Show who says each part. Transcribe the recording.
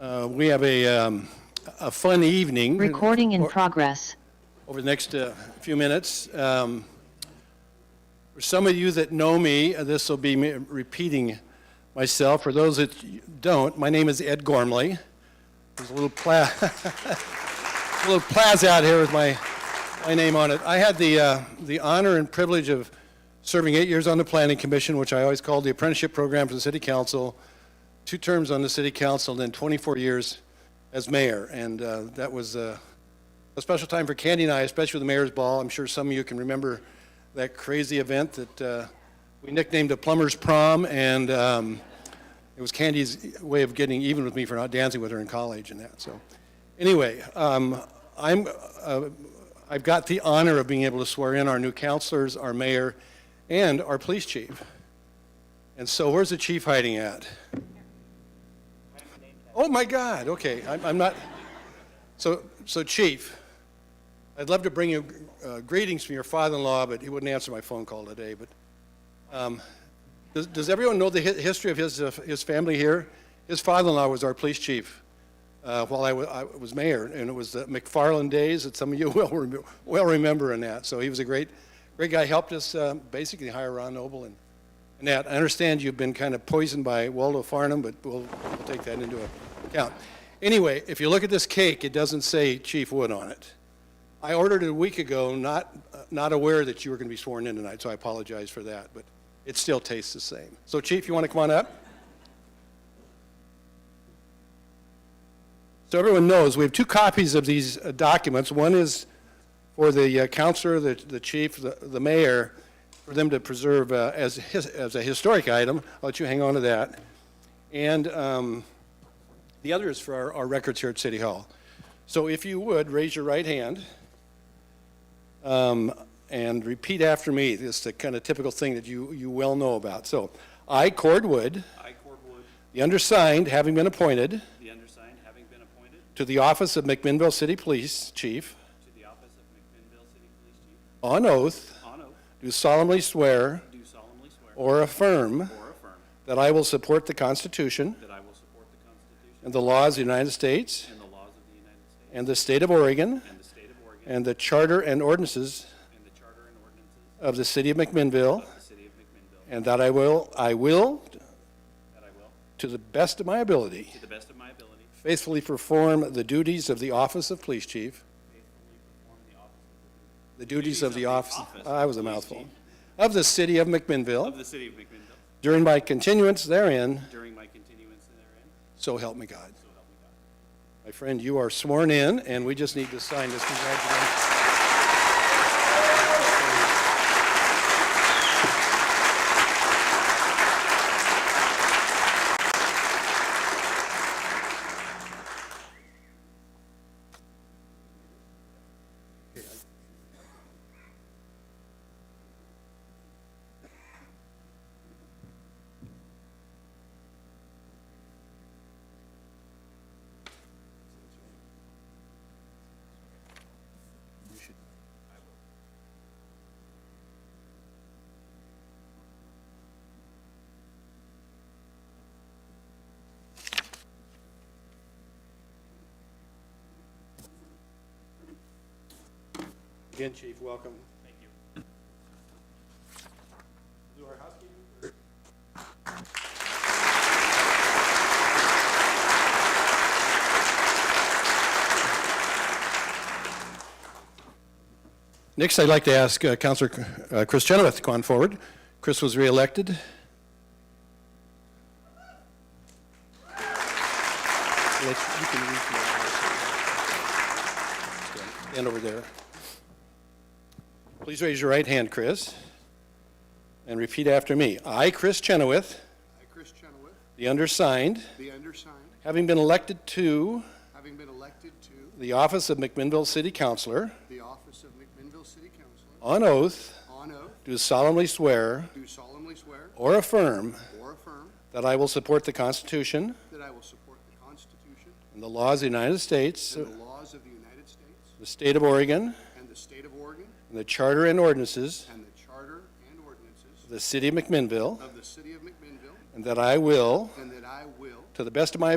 Speaker 1: Uh, We have a, um, a fun evening.
Speaker 2: Recording in
Speaker 1: Or-
Speaker 2: progress.
Speaker 1: over the next uh, few minutes. Um, For some of you that know me, uh, this will be me repeating myself. For those that y- don't, my name is Ed Gormley. There's a little pla, a little plaza out here with my, my name on it. I had the, uh, the honor and privilege of serving eight years on the Planning Commission, which I always called the apprenticeship program for the city council, two terms on the city council, and then 24 years as mayor. And uh, that was, uh, a special time for Candy and I, especially with the Mayor's Ball. I'm sure some of you can remember that crazy event that uh, we nicknamed a plumber's prom, and um, it was Candy's way of getting even with me for not dancing with her in college and that. So, anyway, um, I'm uh, I've got the honor of being able to swear in our new counselors, our mayor, and our police chief. And so, where's the chief hiding at? Oh my God! Okay, I'm, I'm not. So, so Chief, I'd love to bring you uh, greetings from your father-in-law, but he wouldn't answer my phone call today, but, um, does, does everyone know the hi- history of his, uh, his family here? His father-in-law was our police chief, uh, while I wa- I was mayor, and it was the McFarland days that some of you will, rem- well remember in that. So he was a great, great guy, helped us, uh, basically hire Ron Noble and, and that. I understand you've been kind of poisoned by Waldo Farnham, but we'll, we'll take that into account. Anyway, if you look at this cake, it doesn't say Chief Wood on it. I ordered it a week ago, not, uh, not aware that you were going to be sworn in tonight, so I apologize for that, but it still tastes the same. So Chief, you want to come on up? So everyone knows, we have two copies of these uh, documents. One is for the uh, counselor, the, the chief, the, the mayor, for them to preserve uh, as, his- as a historic item. I'll let you hang on to that. And um, the other is for our, our records here at City Hall. So if you would, raise your right hand um, and repeat after me. This is the kind of typical thing that you, you well know about. So I, Cord Wood,
Speaker 3: I, Corwood,
Speaker 1: the undersigned, having been appointed
Speaker 3: the undersigned, having been appointed
Speaker 1: to the office of McMinnville City Police Chief,
Speaker 3: to the office of McMinnville City Police Chief,
Speaker 1: on oath,
Speaker 3: on oath,
Speaker 1: do solemnly swear
Speaker 3: do solemnly swear
Speaker 1: or affirm
Speaker 3: or affirm
Speaker 1: that I will support the Constitution
Speaker 3: that I will support the Constitution
Speaker 1: and the laws of the United States
Speaker 3: and the laws of the United States
Speaker 1: and the state of Oregon
Speaker 3: and the state of Oregon
Speaker 1: and the charter and ordinances
Speaker 3: and the charter and ordinances
Speaker 1: of the city of McMinnville,
Speaker 3: of the city of McMinnville,
Speaker 1: and that I will, I will,
Speaker 3: that I will, to
Speaker 1: to the best of my ability,
Speaker 3: the best of my ability,
Speaker 1: faithfully perform the duties of the office of police chief,
Speaker 3: faithfully perform the office
Speaker 1: the duties of the office,
Speaker 3: office
Speaker 1: I was a
Speaker 3: of police
Speaker 1: mouthful, of the city of McMinnville
Speaker 3: of the city of McMinnville
Speaker 1: during my continuance therein,
Speaker 3: during my continuance therein,
Speaker 1: so help me God.
Speaker 3: so help me God.
Speaker 1: My friend, you are sworn in, and we just need to sign this. Congratulations. Again, Chief, welcome. Thank you. Do our housekeeping. Next, I'd like to ask uh, Counselor uh, Chris Chenoweth to come on forward. Chris was reelected. Let's- you can reach me. Stand over there. Please raise your right hand, Chris, and repeat after me. I, Chris Chenoweth,
Speaker 4: I, Chris Chenoweth,
Speaker 1: the undersigned,
Speaker 4: the undersigned,
Speaker 1: having been elected to
Speaker 4: having been elected to
Speaker 1: the office of McMinnville City Councilor,
Speaker 4: the office of McMinnville City Councilor,
Speaker 1: on oath,
Speaker 4: on oath,
Speaker 1: do solemnly swear
Speaker 4: do solemnly swear
Speaker 1: or affirm
Speaker 4: or affirm
Speaker 1: that I will support the Constitution
Speaker 4: that I will support the Constitution
Speaker 1: and the laws of the United States,
Speaker 4: and the laws of the United States
Speaker 1: the state of Oregon,
Speaker 4: and the state of Oregon
Speaker 1: and the charter and ordinances
Speaker 4: and the charter and ordinances
Speaker 1: of the city of McMinnville,
Speaker 4: of the city of McMinnville,
Speaker 1: and that I will,
Speaker 4: and that I will
Speaker 1: to the best of my